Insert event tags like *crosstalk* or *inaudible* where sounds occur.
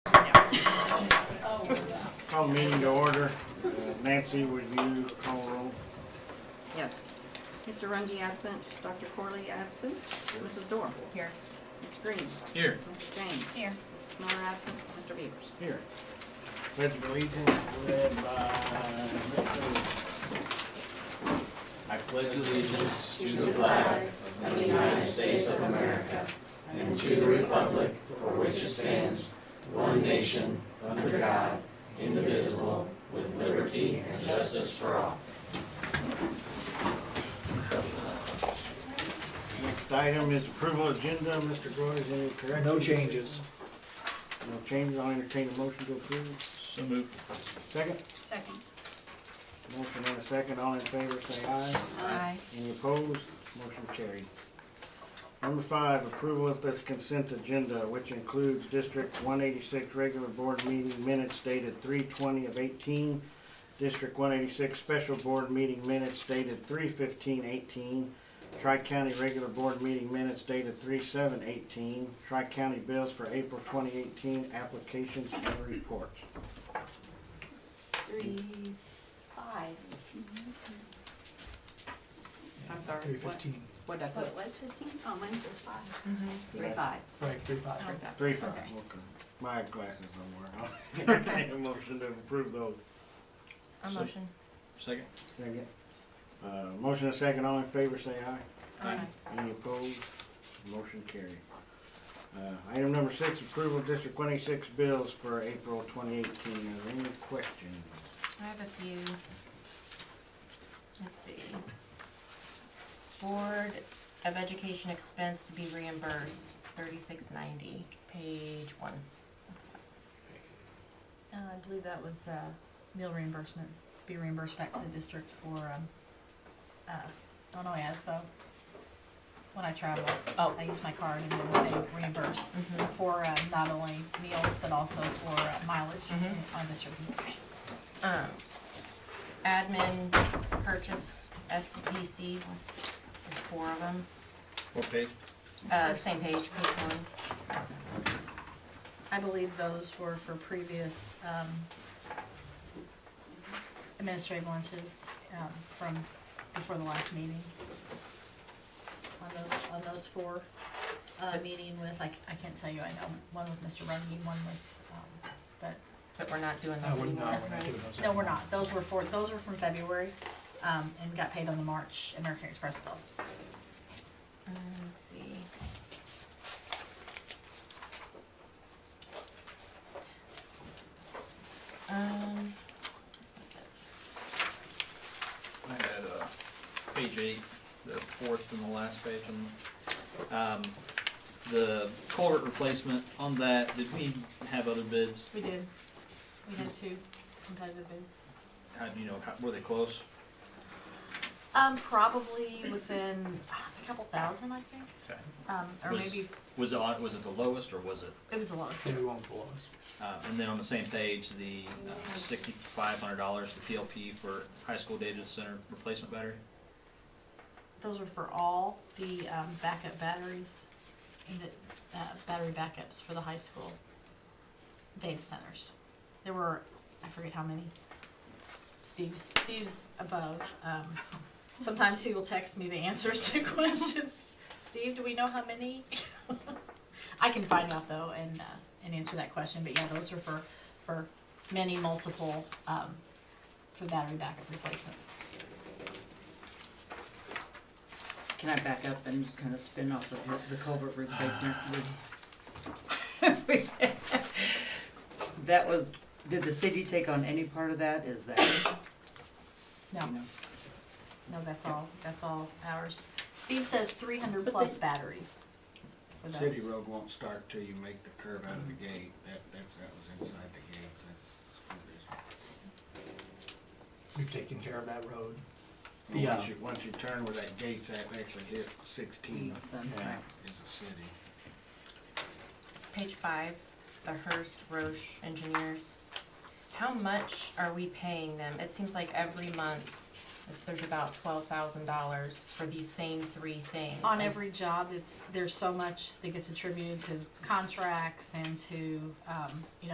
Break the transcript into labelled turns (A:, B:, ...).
A: Call the meeting to order. Uh, Nancy, would you call the roll?
B: Yes.
C: Mr. Rungy absent, Dr. Corley absent, Mrs. Dorr,
B: Here.
C: Mr. Green,
A: Here.
C: Mrs. James.
B: Here.
C: Mrs. Miller absent, Mr. Beavers.
A: Here. Pledge of allegiance led by Mr.
D: I pledge allegiance to the flag of the United States of America and to the republic for which it stands, one nation, under God, indivisible, with liberty and justice for all.
A: Next item is approval agenda. Mr. Groy, is any corrections?
E: No changes.
A: No changes. I'll entertain a motion to approve.
D: So moved.
A: Second?
C: Second.
A: Motion and a second. All in favor, say aye.
B: Aye.
A: Any opposed? Motion carried. Number five, approval of the consent agenda, which includes District one eighty-six regular board meeting minutes dated three twenty of eighteen, District one eighty-six special board meeting minutes dated three fifteen eighteen, Tri-County regular board meeting minutes dated three seven eighteen, Tri-County bills for April twenty eighteen, applications and reports.
C: Three, five. I'm sorry,
E: Three
C: what,
E: fifteen,
B: What did I put?
C: what was fifteen? Oh, mine says five.
B: Three five.
E: right, three five.
B: Three five.
A: Three five,
B: Okay.
A: okay. My glasses *laughs* don't work. I'll entertain a motion to approve those.
B: um, A motion.
D: Second.
A: Second. Uh, motion and second, all in favor, say aye.
B: Aye.
A: Any opposed? Motion carried. Uh, item number six, approval of District twenty-six bills for April twenty eighteen. Are there any questions?
F: I have a few. Let's see. Board of Education expense to be reimbursed, thirty-six ninety, page one.
G: Uh, I believe that was, uh, meal reimbursement, to be reimbursed back to the district for, um, uh, Illinois ASBO. When I travel,
F: Oh.
G: I use my card and then they reimburse
F: Mhm.
G: for, uh, not only meals, but also for uh, mileage
F: Mhm.
G: on this review.
F: Um, admin purchase SBC, there's four of them,
D: What page?
F: uh, same page, page one.
G: I believe those were for previous, um, administrative lunches, um, from before the last meeting. On those, on those four, uh, meeting with, like, I can't tell you, I know, one with Mr. Rungy, one with, um, but,
F: But we're not doing
E: No,
F: those
E: we're
F: anymore,
E: not, we're not
F: right?
E: doing those.
G: no, we're not, those were for, those were from February, um, and got paid on the March American Express bill.
F: Um, let's see. Um, what's that?
D: I had, uh, page eight, the fourth from the last page, and, um, the culvert replacement on that, did we have other bids?
G: We did, we had two competitive bids.
D: How, do you know, how, were they close?
G: Um, probably within ah, a couple thousand, I think.
D: Okay.
G: Um, or
D: Was-
G: maybe,
D: Was it, on- was it the lowest, or was it
G: it was a lot.
E: Maybe one below us.
D: Uh, and then on the same page, the uh, sixty-five hundred dollars to PLP for high school data center replacement battery.
G: Those were for all the, um, backup batteries, and the, uh, battery backups for the high school data centers. There were, I forget how many. Steve's, Steve's above, um, *laughs* sometimes he will text me the answers to *laughs* questions. Steve, do we know how many? *laughs* I can find out though and, uh, and answer that question, but yeah, those are for, for many multiple, um, for battery backup replacements.
H: Can I back up and just kind of spin off of the- the culvert replacement? That was, did the city take on any part of that? Is that?
G: No.
H: you know?
G: No, that's all, that's all ours. Steve says three hundred plus batteries for
A: City
G: those.
A: road won't start till you make the curve out of the gate. That, that, that was inside the gate. That's-
E: We've taken care of that road.
A: that's-
E: Yeah.
A: Once you, once you turn where that gate's at, actually hit sixteen,
H: So,
E: Yeah.
A: is a city.
F: Page five, the Hearst Roche engineers. How much are we paying them? It seems like every month, there's about twelve thousand dollars for these same three things.
G: On
F: And-
G: every job, it's, there's so much that gets attributed to contracts and to, um, you know,